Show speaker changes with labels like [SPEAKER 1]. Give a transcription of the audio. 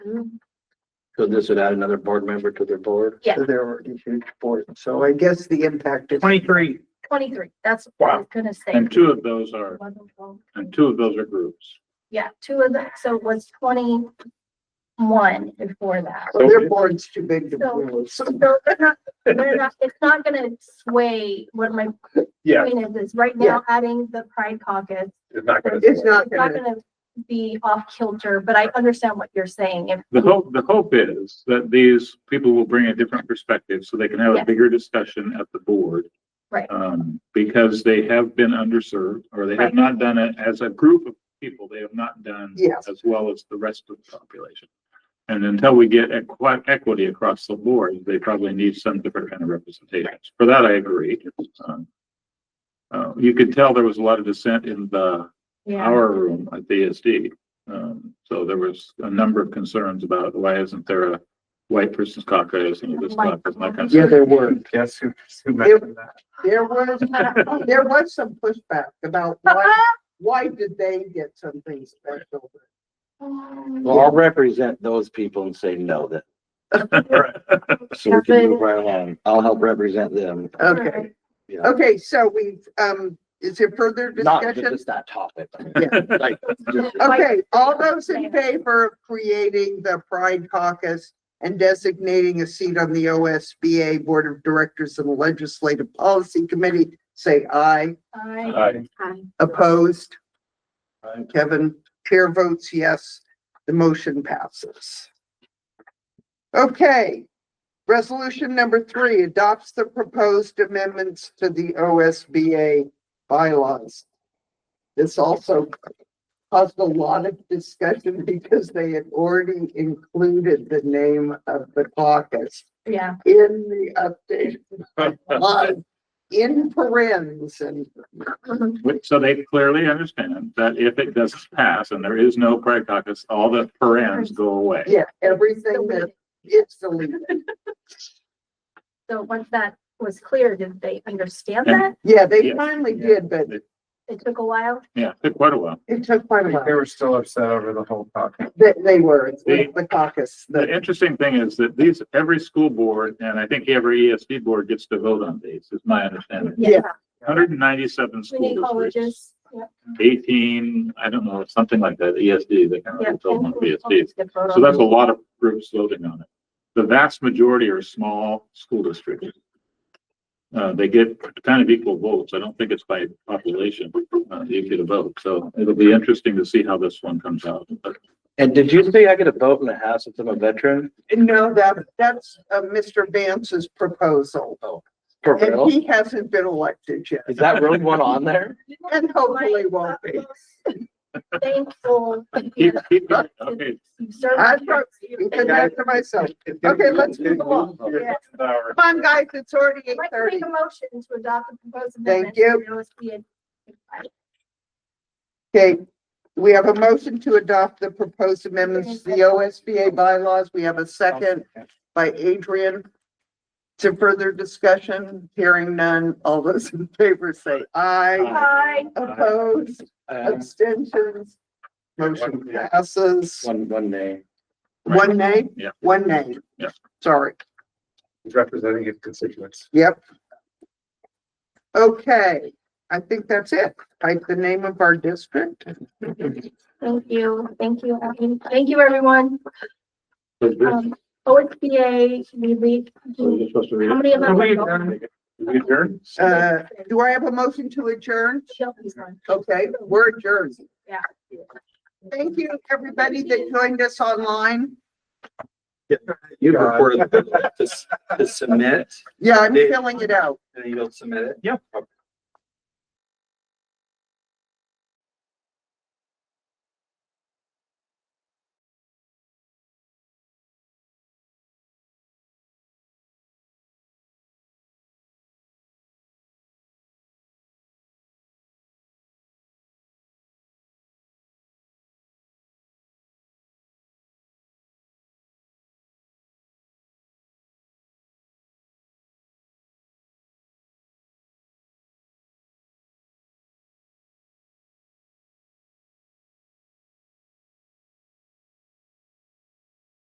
[SPEAKER 1] So this would add another board member to their board?
[SPEAKER 2] Yeah.
[SPEAKER 3] So they're already huge board. So I guess the impact is.
[SPEAKER 4] Twenty-three,
[SPEAKER 2] Twenty-three, that's what I was gonna say.
[SPEAKER 5] And two of those are,
[SPEAKER 2] Eleven, twelve,
[SPEAKER 5] and two of those are groups.
[SPEAKER 2] Yeah, two of the, so it was twenty-one before that.
[SPEAKER 3] So Their board's too big to lose.
[SPEAKER 2] So they're not, they're not, it's not gonna sway what my
[SPEAKER 5] Yeah.
[SPEAKER 2] point is, is right now adding the pride caucus.
[SPEAKER 5] It's not gonna.
[SPEAKER 3] It's not
[SPEAKER 2] It's not
[SPEAKER 3] gonna,
[SPEAKER 2] gonna be off kilter, but I understand what you're saying. If
[SPEAKER 5] The hope, the hope is that these people will bring a different perspective so they can have
[SPEAKER 2] Yeah.
[SPEAKER 5] a bigger discussion at the board.
[SPEAKER 2] Right.
[SPEAKER 5] Um, because they have been underserved or they
[SPEAKER 2] Right.
[SPEAKER 5] have not done it as a group of people, they have not done
[SPEAKER 3] Yes.
[SPEAKER 5] as well as the rest of the population. And until we get equi- equity across the board, they probably need some different kind of representations. For that, I agree. Um, Uh, you could tell there was a lot of dissent in the
[SPEAKER 2] Yeah,
[SPEAKER 5] our room at the ESD. Um, so there was a number of concerns about why isn't there a white person's caucus and this caucus, and that kind of
[SPEAKER 3] yeah,
[SPEAKER 5] stuff.
[SPEAKER 3] there were.
[SPEAKER 4] yes, who, who mentioned that?
[SPEAKER 3] There was, there was some pushback about why, why did they get something special?
[SPEAKER 1] Well, I'll represent those people and say no then. So we can move right along. I'll help represent them.
[SPEAKER 3] Okay,
[SPEAKER 1] Yeah.
[SPEAKER 3] okay, so we've, um, is there further
[SPEAKER 1] Not that
[SPEAKER 3] discussion?
[SPEAKER 1] it's that topic.
[SPEAKER 3] Yeah.
[SPEAKER 1] Like, just-
[SPEAKER 3] Okay, all those in favor of creating the Pride Caucus and designating a seat on the OSBA Board of Directors and Legislative Policy Committee, say aye.
[SPEAKER 2] I,
[SPEAKER 5] Aye.
[SPEAKER 3] Opposed? Uh,
[SPEAKER 1] Aye.
[SPEAKER 3] Kevin, chair votes yes, the motion passes. Okay, resolution number three adopts the proposed amendments to the OSBA bylaws. This also caused a lot of discussion because they had already included the name of the caucus
[SPEAKER 2] yeah,
[SPEAKER 3] in the update, bylaws, in parens and
[SPEAKER 5] Which- So they clearly understand that if it doesn't pass and there is no pride caucus, all the parens go away.
[SPEAKER 3] Yeah, everything that is deleted.
[SPEAKER 2] so once that was clear, did they understand that?
[SPEAKER 3] Yeah, they
[SPEAKER 5] Yeah.
[SPEAKER 3] finally did, but
[SPEAKER 2] It took a while.
[SPEAKER 5] Yeah, took quite a while.
[SPEAKER 3] it took quite a
[SPEAKER 4] They
[SPEAKER 3] while.
[SPEAKER 4] were still upset over the whole topic.
[SPEAKER 3] They, they were, it's
[SPEAKER 5] They-
[SPEAKER 3] the caucus,
[SPEAKER 5] The
[SPEAKER 3] the,
[SPEAKER 5] interesting thing is that these, every school board, and I think every ESD board gets to vote on these, is my understanding.
[SPEAKER 3] Yeah.
[SPEAKER 5] Hundred and ninety-seven
[SPEAKER 2] We need
[SPEAKER 5] school districts.
[SPEAKER 2] colleges. Yeah.
[SPEAKER 5] eighteen, I don't know, something like that, ESD, they kind
[SPEAKER 2] Yeah.
[SPEAKER 5] of told them ESD.
[SPEAKER 2] Colleges get voted
[SPEAKER 5] So
[SPEAKER 2] on.
[SPEAKER 5] that's a lot of groups voting on it. The vast majority are small school districts. Uh, they get kind of equal votes. I don't think it's by population, uh, you get a vote. So it'll be interesting to see how this one comes out. But
[SPEAKER 1] And did you say I get a vote in the House if I'm a veteran?
[SPEAKER 3] no, that, that's, uh, Mr. Vance's proposal.
[SPEAKER 1] For real?
[SPEAKER 3] And he hasn't been elected yet,
[SPEAKER 1] Is that really one on there?
[SPEAKER 3] and hopefully won't be.
[SPEAKER 2] Thankful.
[SPEAKER 5] keep- keep it- Okay,
[SPEAKER 2] You serve
[SPEAKER 3] I
[SPEAKER 2] the
[SPEAKER 3] pro-
[SPEAKER 2] country.
[SPEAKER 3] He said that to myself. Okay, let's move along.
[SPEAKER 2] Yeah.
[SPEAKER 3] Come on, guys, it's already eight
[SPEAKER 2] I'd like to
[SPEAKER 3] thirty.
[SPEAKER 2] make a motion to adopt the proposed amendment.
[SPEAKER 3] Thank you. Okay, we have a motion to adopt the proposed amendments to the OSBA bylaws. We have a second by Adrian. To further discussion, hearing none, all those in favor say aye.
[SPEAKER 2] Hi,
[SPEAKER 3] Opposed,
[SPEAKER 1] Uh,
[SPEAKER 3] abstentions, motion passes.
[SPEAKER 1] One, one name.
[SPEAKER 3] One nay?
[SPEAKER 5] Yeah.
[SPEAKER 3] One nay?
[SPEAKER 5] Yeah.
[SPEAKER 3] Sorry,
[SPEAKER 4] He's representing his constituents.
[SPEAKER 3] yep. Okay, I think that's it. Type the name of our district.
[SPEAKER 2] thank you, thank you, Evan. thank you, everyone.
[SPEAKER 5] so this-
[SPEAKER 2] Um, OSBA, we read,
[SPEAKER 5] so we're
[SPEAKER 2] how
[SPEAKER 5] supposed to read it?
[SPEAKER 2] many of them?
[SPEAKER 4] Wait,
[SPEAKER 2] are going?
[SPEAKER 4] um,
[SPEAKER 5] We adjourn?
[SPEAKER 3] Uh, Do I have a motion to adjourn?
[SPEAKER 2] Shelby's one.
[SPEAKER 3] Okay, we're adjourned.
[SPEAKER 2] Yeah.
[SPEAKER 3] Thank you, everybody that joined us online.
[SPEAKER 1] You
[SPEAKER 4] God.
[SPEAKER 1] reported the, the submit,
[SPEAKER 3] Yeah, I'm
[SPEAKER 1] They-
[SPEAKER 3] filling it out.
[SPEAKER 1] and you'll submit it?
[SPEAKER 4] Yep.